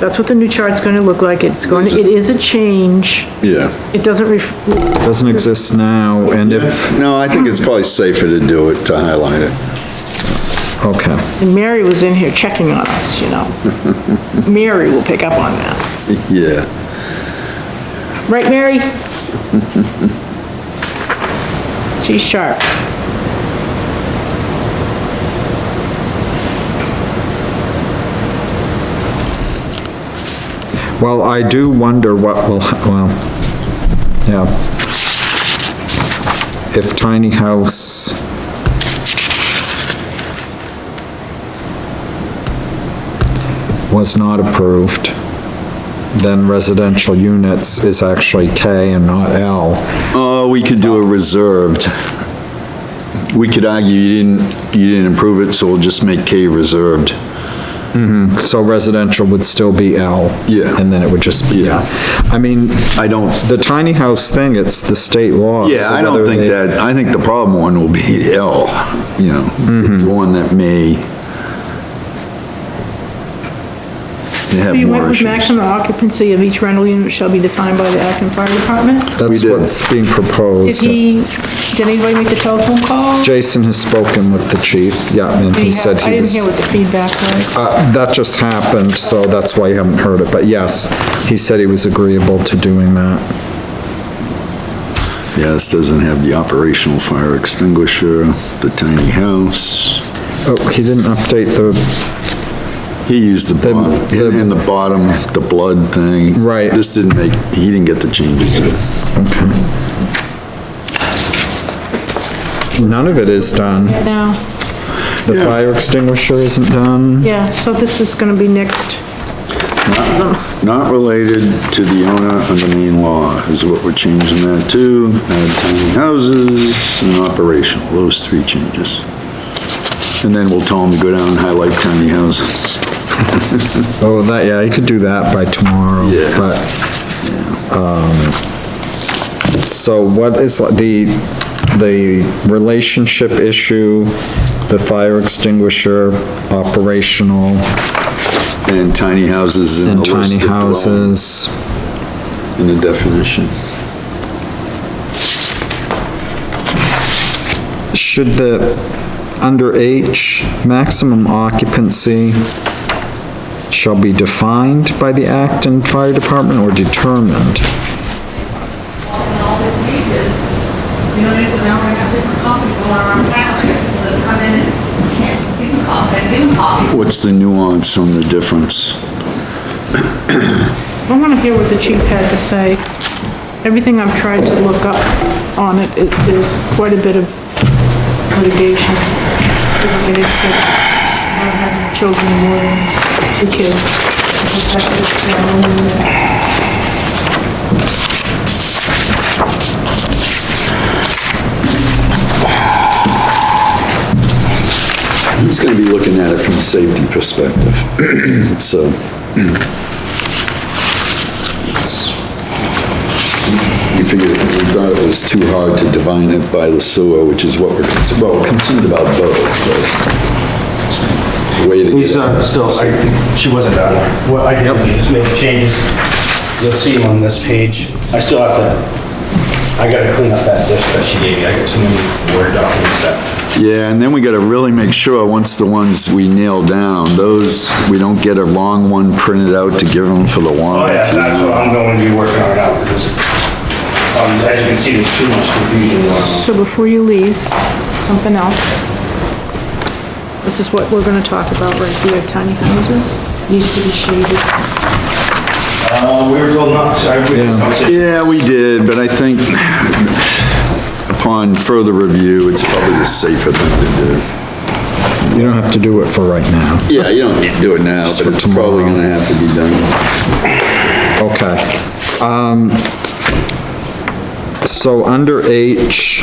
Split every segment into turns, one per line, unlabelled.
That's what the new chart's gonna look like. It's going, to it is a change.
Yeah.
It doesn't ref,
Doesn't exist now, and if,
No, I think it's probably safer to do it, to highlight it.
okay,
and Mary was in here checking on us, you know. Mary will pick up on that.
Yeah.
Right, Mary? She's sharp.
well, I do wonder what will, ha- well, yeah. If tiny house, was not approved, then residential units is actually K and not L.
Oh, we could do a reserved. We could argue you didn't, you didn't improve it, so we'll just make K reserved.
So residential would still be L.
Yeah.
And then it would just be,
Yeah.
yeah. I mean,
I don't,
the tiny house thing, it's the state law.
yeah,
so
I don't
whether
think
they-
that, I think the problem one will be L, you know, the one that may have
So you went
more
with
issues.
maximum occupancy of each rental unit shall be defined by the Acton Fire Department?
That's
We did.
what's being
Did
proposed.
he, did anybody make the telephone call?
Jason has spoken with the chief, yeah, and
Did
he
have-
said
I
he
didn't hear
was,
what the feedback was.
uh, that just happened, so that's why you haven't heard it, but yes, he said he was agreeable to doing that.
Yeah, this doesn't have the operational fire extinguisher, the tiny house.
Oh, he didn't update the,
He used the, bo-
The-
in in the bottom, the blood thing.
Right.
This didn't make, he didn't get the changes. in.
none of it is done.
Now,
The fire extinguisher isn't done.
yeah, so this is gonna be next.
Not related to the owner of the main law is what we're changing that to. Add tiny houses and operational, those three changes. And then we'll tell him to go down and highlight tiny houses.
Oh, that, yeah, he could do that by tomorrow,
Yeah.
but, um, so what is the, the relationship issue, the fire extinguisher, operational,
And tiny houses in the
and
list
tiny
of dwelling
houses?
in the definition.
Should the, under H, maximum occupancy shall be defined by the Acton Fire Department or determined?
in all these pages, you know, it's, now we have different copies all around town, like, that come in and can't give them copies, give them copies.
What's the nuance on the difference?
I wanna hear what the chief had to say. Everything I've tried to look up on it, it, there's quite a bit of litigation. Everybody's got- I have Children more than two kids. That's just, um,
He's gonna be looking at it from a safety perspective, so. You figured, we thought it was too hard to divine it by the sewer, which is what we're, concerned. well, we're concerned about both, but. the Way to get.
Lisa, still, I think she wasn't done. What I did was just make changes. You'll see on this page. I still have to, I gotta clean up that list that she gave me. I got too many Word documents that.
Yeah, and then we gotta really make sure, once the ones we nail down, those, we don't get a long one printed out to give them for the
Oh,
warrant.
yeah, that's what I'm going to be working on now because, um, as you can see, there's too much confusion going on.
So before you leave, something else. This is what we're gonna talk about right here, tiny houses, needs to be shaded.
Uh, we were told not to, I, we had a conversation.
Yeah, we did, but I think upon further review, it's probably the safer thing to do.
You don't have to do it for right now.
Yeah, you don't need to do it now, but it's probably gonna have to be done.
Okay. Um, So under H,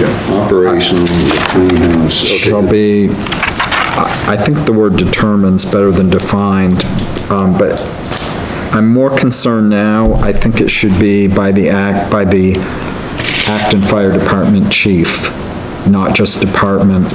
Yeah, Operational, tiny house, okay.
shall be, I- I think the word determines better than defined, um, but I'm more concerned now, I think it should be by the act, by the Acton Fire Department chief, not just department